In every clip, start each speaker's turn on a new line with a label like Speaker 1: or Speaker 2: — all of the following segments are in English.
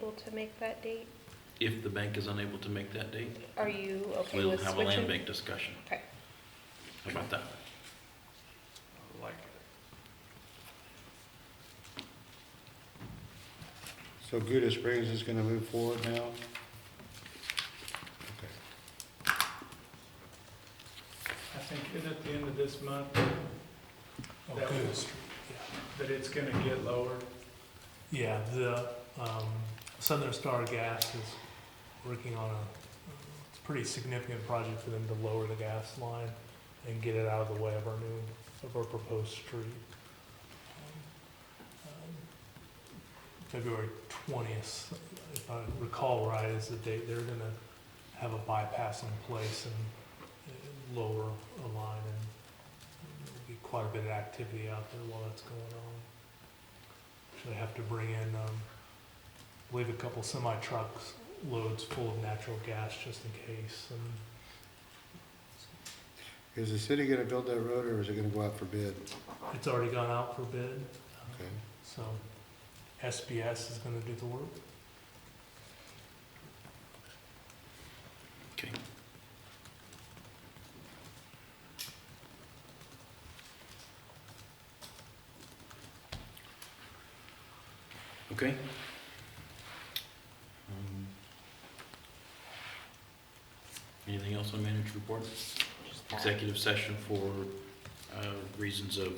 Speaker 1: able to make that date?
Speaker 2: If the bank is unable to make that date,
Speaker 1: Are you okay
Speaker 2: we'll
Speaker 1: with
Speaker 2: have a land
Speaker 1: switching?
Speaker 2: bank discussion.
Speaker 1: Okay.
Speaker 2: How about that?
Speaker 3: I like it.
Speaker 4: So Gouda Springs is gonna move forward now? Okay.
Speaker 5: I think it at the end of this month,
Speaker 6: Oh,
Speaker 5: That
Speaker 6: good.
Speaker 5: was- that it's gonna get lower.
Speaker 6: Yeah, the um, Southern Star Gas is working on a, it's a pretty significant project for them to lower the gas line and get it out of the way of our new, of our proposed street. Um, February twentieth, if I recall right, is the date they're gonna have a bypass in place and uh, lower a line and there'll be quite a bit of activity out there while that's going on. Actually have to bring in, um, I believe a couple semi trucks loads full of natural gas just in case and
Speaker 4: Is the city gonna build that road or is it gonna go out for bid?
Speaker 6: it's already gone out for bid.
Speaker 4: Okay.
Speaker 6: So SBS is gonna do the work.
Speaker 2: Okay. Okay. Um, Anything else on manager report?
Speaker 1: Just that.
Speaker 2: Executive session for uh, reasons of,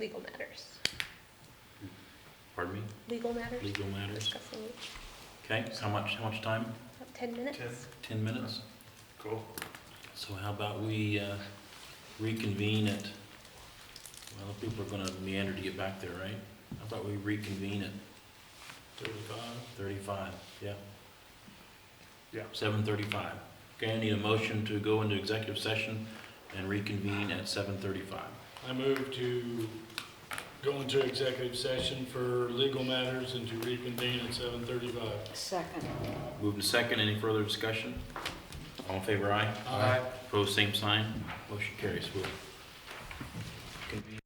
Speaker 1: Legal matters.
Speaker 2: pardon me,
Speaker 1: Legal matters?
Speaker 2: legal matters.
Speaker 1: Discussing
Speaker 2: Okay, how much, how much time?
Speaker 1: about 10 minutes?
Speaker 3: Ten.
Speaker 2: 10 minutes?
Speaker 3: Cool.
Speaker 2: So how about we uh, reconvene at, well, people are gonna meander to get back there, right? How about we reconvene at? Thirty-five? Thirty-five, yeah.
Speaker 3: Yeah.
Speaker 2: Seven thirty-five. Okay, I need a motion to go into executive session and reconvene at seven thirty-five.
Speaker 3: I move to go into executive session for legal matters and to reconvene at seven thirty-five.
Speaker 7: Second.
Speaker 2: Move to second, any further discussion? All in favor, aye?
Speaker 3: Aye.
Speaker 2: Opposed, same sign. Motion carries. We'll convene.